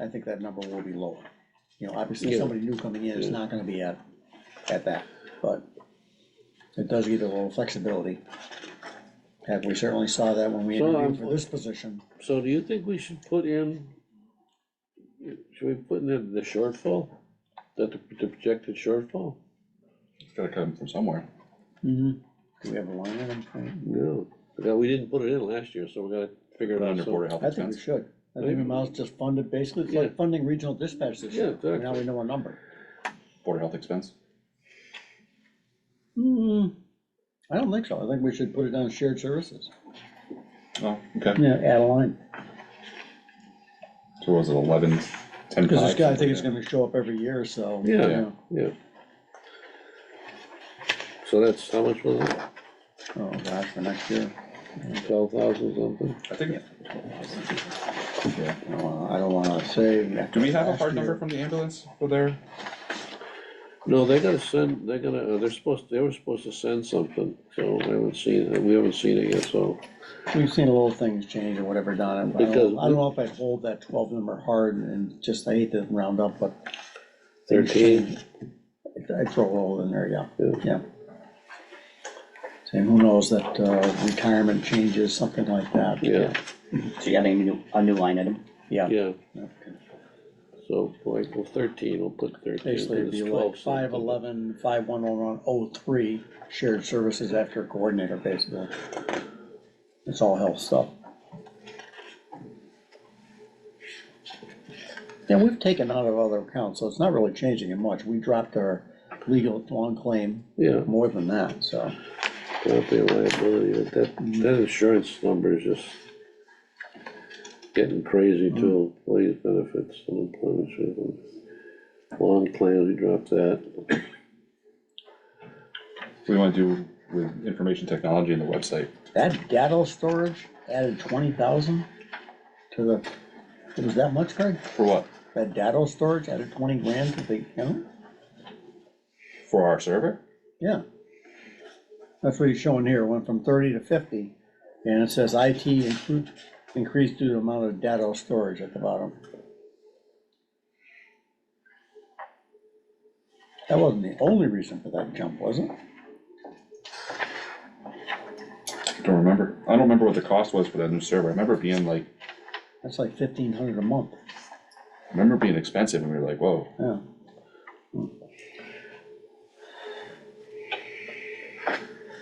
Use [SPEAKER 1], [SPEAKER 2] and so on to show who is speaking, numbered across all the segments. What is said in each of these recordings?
[SPEAKER 1] I think that number will be lower. You know, obviously,
[SPEAKER 2] Yeah.
[SPEAKER 1] somebody new coming in is not gonna be at, at that, but it does give you a little flexibility. And we certainly saw that when we
[SPEAKER 2] So,
[SPEAKER 1] interviewed
[SPEAKER 2] um,
[SPEAKER 1] for this position.
[SPEAKER 2] So do you think we should put in, should we put in the- the shortfall? That the, the projected shortfall?
[SPEAKER 3] It's gotta come from somewhere.
[SPEAKER 1] Do we have a line item?
[SPEAKER 2] No, no, we didn't put it in last year, so we gotta figure it out.
[SPEAKER 3] Under
[SPEAKER 2] some-
[SPEAKER 3] Board of Health
[SPEAKER 1] I think we
[SPEAKER 3] expense.
[SPEAKER 1] should. I think we might as well just fund it, basically, it's like
[SPEAKER 2] Yeah.
[SPEAKER 1] funding regional dispatch this
[SPEAKER 2] Yeah,
[SPEAKER 1] year. Now
[SPEAKER 2] exactly.
[SPEAKER 1] we know our number.
[SPEAKER 3] Board of Health expense.
[SPEAKER 1] Hmm, I don't think so. I think we should put it on shared services.
[SPEAKER 3] Oh, okay.
[SPEAKER 1] Yeah, add a line.
[SPEAKER 3] So what was it eleven, ten?
[SPEAKER 1] Because this
[SPEAKER 3] five,
[SPEAKER 1] guy, I
[SPEAKER 3] something
[SPEAKER 1] think it's
[SPEAKER 3] like
[SPEAKER 1] gonna show up every year, so.
[SPEAKER 2] Yeah.
[SPEAKER 1] you know.
[SPEAKER 2] Yeah. So that's, how much was it?
[SPEAKER 1] Oh, gosh, for next year.
[SPEAKER 2] Twelve thousand something?
[SPEAKER 3] that. I think. Yeah.
[SPEAKER 1] I don't wanna- I don't wanna say.
[SPEAKER 3] Do we have a
[SPEAKER 1] last year.
[SPEAKER 3] hard number from the ambulance for their?
[SPEAKER 2] No, they gotta send, they're gonna, uh, they're supposed, they were supposed to send something, so I haven't seen, it. we haven't seen it yet, so.
[SPEAKER 1] We've seen a little things change or whatever, Donna. but I
[SPEAKER 2] Because-
[SPEAKER 1] don't I don't know if I'd hold that twelve number hard and just, I hate to round up, but. things
[SPEAKER 2] Thirteen.
[SPEAKER 1] change. I'd throw a little in there, yeah,
[SPEAKER 2] Yeah.
[SPEAKER 1] yeah. And who knows that uh, retirement changes, something like that.
[SPEAKER 2] Yeah,
[SPEAKER 4] So you have a new, a new line item?
[SPEAKER 1] Yeah.
[SPEAKER 2] yeah,
[SPEAKER 1] Okay.
[SPEAKER 2] so like, well, thirteen, we'll put thirteen.
[SPEAKER 1] Basically, it'd be
[SPEAKER 2] it's
[SPEAKER 1] like
[SPEAKER 2] 12 something.
[SPEAKER 1] five eleven, five one oh one oh three, shared services after coordinator, basically. It's all health stuff. And we've taken out of other accounts, so it's not really changing it much. We dropped our legal long claim
[SPEAKER 2] Yeah,
[SPEAKER 1] more than that, so.
[SPEAKER 2] property liability, but that, that insurance number is just getting crazy too, employees benefits, unemployment, insurance. long claims, we dropped that.
[SPEAKER 3] We wanna do with information technology and the website.
[SPEAKER 1] That data storage added twenty thousand to the, it was that much, Craig?
[SPEAKER 3] For what?
[SPEAKER 1] That data storage added twenty grand to the account?
[SPEAKER 3] For our server?
[SPEAKER 1] Yeah. That's what he's showing here, went from thirty to fifty, and it says IT increased, increased due to amount of data storage at the bottom. That wasn't the only reason for that jump, was it?
[SPEAKER 3] Don't remember. I don't remember what the cost was for that new server. I remember it being like,
[SPEAKER 1] That's like fifteen hundred a month,
[SPEAKER 3] I remember it being expensive and we were like, whoa.
[SPEAKER 1] yeah.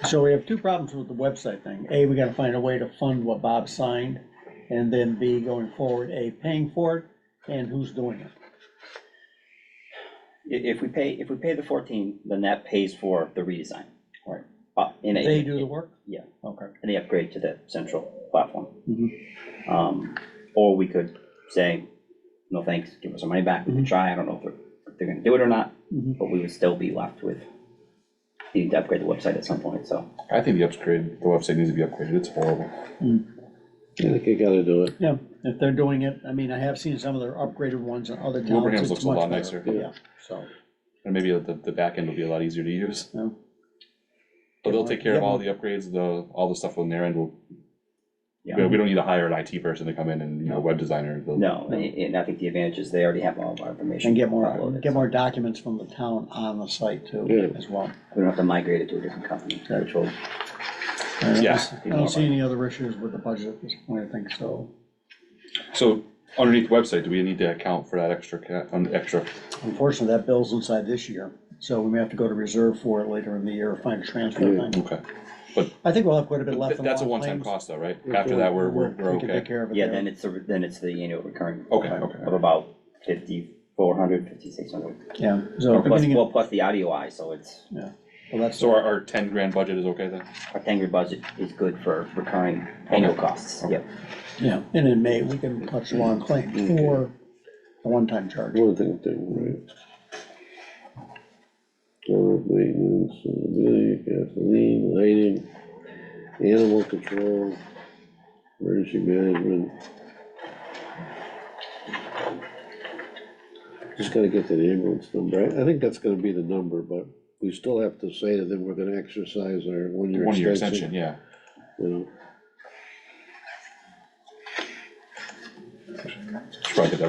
[SPEAKER 1] So we have two problems with the website thing. A, we gotta find a way to fund what Bob signed, and then B, going forward, A, paying for it, and who's doing it.
[SPEAKER 4] I- If we pay, if we pay the fourteen, then that pays for the redesign.
[SPEAKER 1] Right.
[SPEAKER 4] Uh, in a-
[SPEAKER 1] They do the work?
[SPEAKER 4] Yeah,
[SPEAKER 1] Okay.
[SPEAKER 4] and the upgrade to the central platform.
[SPEAKER 1] Mhm.
[SPEAKER 4] Um, or we could say, no thanks, give us our money back, we
[SPEAKER 1] Mm-hmm.
[SPEAKER 4] can try, I don't know if they're, if they're gonna do it or not,
[SPEAKER 1] Mhm.
[SPEAKER 4] but we would still be left with needing to upgrade the website at some point, so.
[SPEAKER 3] I think the upgrade, the website needs to be upgraded. It's horrible.
[SPEAKER 2] I think you gotta do it,
[SPEAKER 1] Yeah, if they're doing it, I mean, I have seen some of their upgraded ones in other towns.
[SPEAKER 3] Wilbraham's
[SPEAKER 1] it's
[SPEAKER 3] looks a
[SPEAKER 1] much
[SPEAKER 3] lot
[SPEAKER 1] better.
[SPEAKER 3] nicer.
[SPEAKER 1] Yeah, so,
[SPEAKER 3] And maybe the, the back end will be a lot easier to use.
[SPEAKER 1] yeah.
[SPEAKER 3] But they'll take care of all the
[SPEAKER 1] Yeah.
[SPEAKER 3] upgrades, the, all the stuff on their end will,
[SPEAKER 4] Yeah.
[SPEAKER 3] we we don't need to hire an IT person to come in and, you know, web designer. they'll-
[SPEAKER 4] No, and, and I think the advantage is they already have all of our information.
[SPEAKER 1] And get more,
[SPEAKER 4] uploaded,
[SPEAKER 1] get
[SPEAKER 4] so
[SPEAKER 1] more documents from the town on the site too,
[SPEAKER 2] Yeah.
[SPEAKER 1] as well.
[SPEAKER 4] We don't have to migrate it to a different company, which will
[SPEAKER 1] I don't-
[SPEAKER 3] Yeah.
[SPEAKER 1] I don't see any other issues with the budget at this point, I think so.
[SPEAKER 3] So underneath the website, do we need to account for that extra, ca- um, extra?
[SPEAKER 1] Unfortunately, that bill's inside this year, so we may have to go to reserve for it later in the year, or find a transfer
[SPEAKER 2] Yeah.
[SPEAKER 1] thing.
[SPEAKER 3] Okay.
[SPEAKER 1] I think we'll have quite a bit left.
[SPEAKER 3] But
[SPEAKER 1] in
[SPEAKER 3] That's a
[SPEAKER 1] law
[SPEAKER 3] one-time
[SPEAKER 1] claims.
[SPEAKER 3] cost though, right?
[SPEAKER 2] Yeah,
[SPEAKER 3] After that, we're, we're, we're
[SPEAKER 1] We can take
[SPEAKER 3] okay.
[SPEAKER 1] care of it.
[SPEAKER 4] Yeah,
[SPEAKER 1] there.
[SPEAKER 4] then it's, the- then it's the annual recurring.
[SPEAKER 3] Okay,
[SPEAKER 4] Of
[SPEAKER 3] okay.
[SPEAKER 4] about fifty-four hundred, fifty-six hundred.
[SPEAKER 1] Yeah, so
[SPEAKER 4] Plus,
[SPEAKER 1] beginning, of-
[SPEAKER 4] well, plus the audio eye, so it's,
[SPEAKER 1] well, that's,
[SPEAKER 3] So our, our ten grand budget is okay then?
[SPEAKER 4] our Tangri budget is good for recurring annual costs, yep.
[SPEAKER 1] yeah, and in May, we can touch law and
[SPEAKER 4] Mm-hmm.
[SPEAKER 1] claim for a one-time charge.
[SPEAKER 2] one thing, thing, right? Current maintenance, uh, building, gasoline, lighting, animal control, emergency management. Just gotta get to the ambulance number, I, I think that's gonna be the number, but we still have to say that we're gonna exercise our one-year
[SPEAKER 3] One-year
[SPEAKER 2] extension,
[SPEAKER 3] extension, yeah.
[SPEAKER 2] you know?
[SPEAKER 3] Should probably get that